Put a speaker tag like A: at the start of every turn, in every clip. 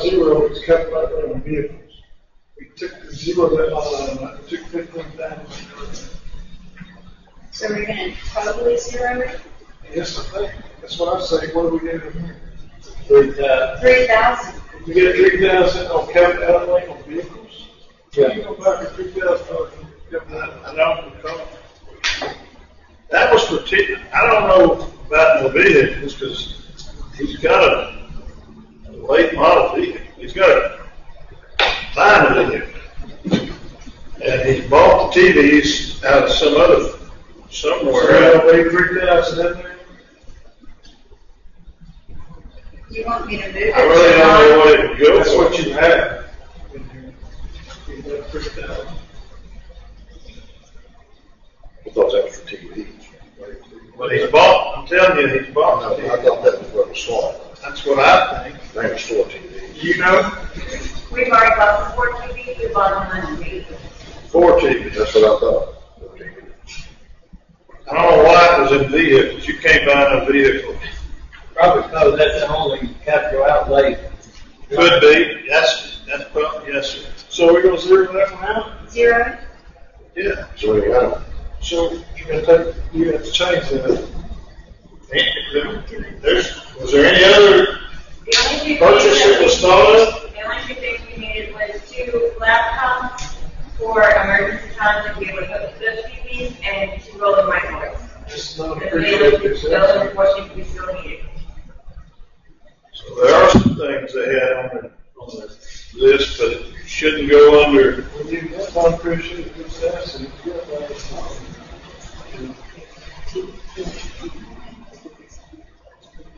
A: zero was kept by the vehicles. We took the zero that, uh, took fifteen thousand.
B: So we're gonna totally zero it,
A: Yes, I think, that's what I'm saying, what do we get?
C: But, uh,
B: three thousand,
A: We get three thousand on capital outlay on vehicles?
C: Yeah.
A: You go back to three thousand, an hour and
D: That was for, T- I don't know about the vehicles, because he's got a late model vehicle, he's got a fine vehicle. And he bought the TVs out of some other, somewhere.
A: Wait, three thousand in there?
B: you want me to move it?
D: I really don't know what it would go for.
A: That's what you have. in here. You got three thousand.
E: I thought that was for TV.
D: But he's bought, I'm telling you, he's
E: I
D: bought the
E: know, I thought that was what was saw.
D: That's what I think.
E: They were still TV.
D: You know,
B: We've already bought the four TVs, we bought the one vehicle.
D: four TVs.
E: That's what I thought.
D: I don't know why it was in vehicles. You can't buy no vehicle.
C: probably because that's the only capital outlay.
D: Could be. Yes, that's probably, yes, sir.
A: So we're gonna zero that one out?
B: Zero,
D: Yeah.
E: So anyway,
A: So you're gonna take, you have to change that.
D: There's, was there any other
B: the only two. things
D: purchase
B: that
D: that
B: we-
D: was thought of?
B: The only two things we needed was two laptops for emergency times if we ever hook up those TVs and two rolling microphones.
A: It's not
B: The
A: appreciated.
B: vehicles, those unfortunately we still needed.
D: So there are some things they had on the, on the list, but it shouldn't go under.
A: When you get one appreciated success and you get one that's not.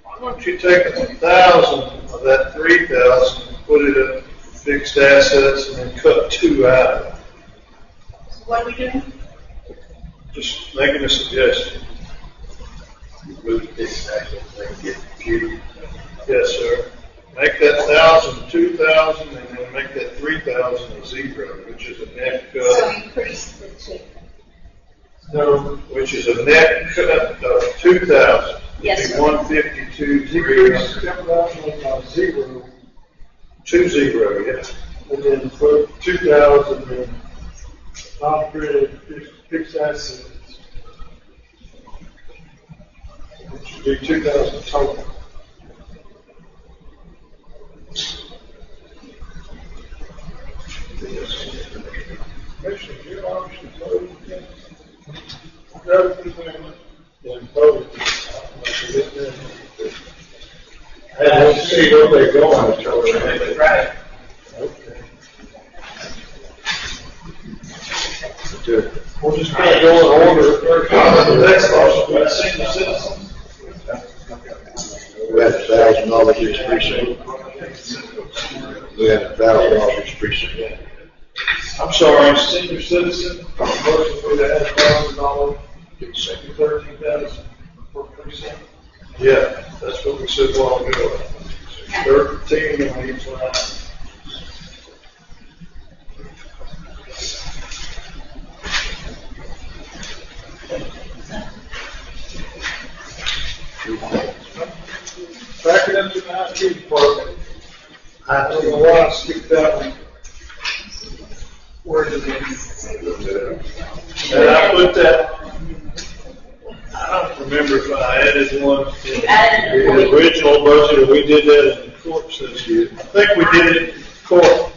D: Why don't you take a thousand of that three thousand and put it in fixed assets and then cut two out of it?
B: So what are we doing?
D: Just making a suggestion.
E: move this action, then get computer.
D: Yes, sir. Make that thousand, two thousand, and then make that three thousand a zero, which is a net cut,
B: increase the two.
A: No,
D: which is a net cut of two thousand.
B: Yes, sir.
D: One fifty-two, three,
A: decrease capital outlay by zero
D: two zero, yes.
A: and then for two thousand and operated fixed assets. Which should be two thousand total. Commissioner, your option, vote again. No, you can, then vote.
E: I don't see where they're going, so I mean,
C: Right.
E: to-
A: We'll just kind of go in order.
D: That's awesome. That's senior citizen.
E: We had a thousand dollars each precinct. We had a thousand dollars each precinct.
D: I'm sorry, senior citizen.
A: Motion for the half thousand dollar,
E: Didn't say.
A: thirteen thousand for precinct.
D: Yeah, that's what we said long ago. Thirteen on each line.
A: Back it up to the IT department. I don't know why I skipped that one. Where did it?
D: And I put that, I don't remember if I added one in
B: You added a
D: the
B: point.
D: original budget, or we did that in the court this year. I think we did it in court.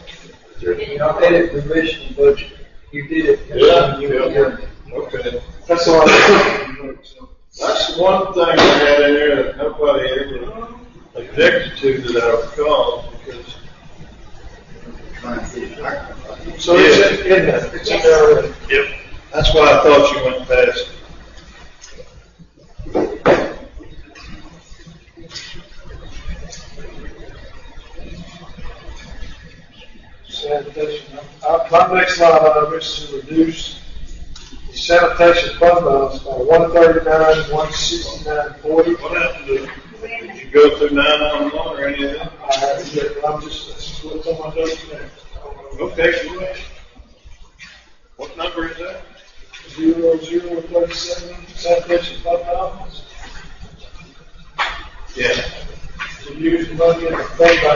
C: You know, they did permission, but you did it.
D: Okay.
A: That's all I.
D: That's the one thing I had in there that nobody ever objected to that I recall, because.
A: So it's in, in there, it's in there.
D: Yep. That's why I thought you went past.
A: Sanitation, Uh, my next line item is to reduce the sanitation fund balance by one thirty-nine, one sixty-nine, forty.
D: What happened to, did you go through nine one one or any of that?
A: I'm just, that's what's on my notes now.
D: Okay, go ahead. What number is that?
A: Zero, zero, thirty-seven, sanitation fund balance,
D: Yeah.
A: to use money in the fund balance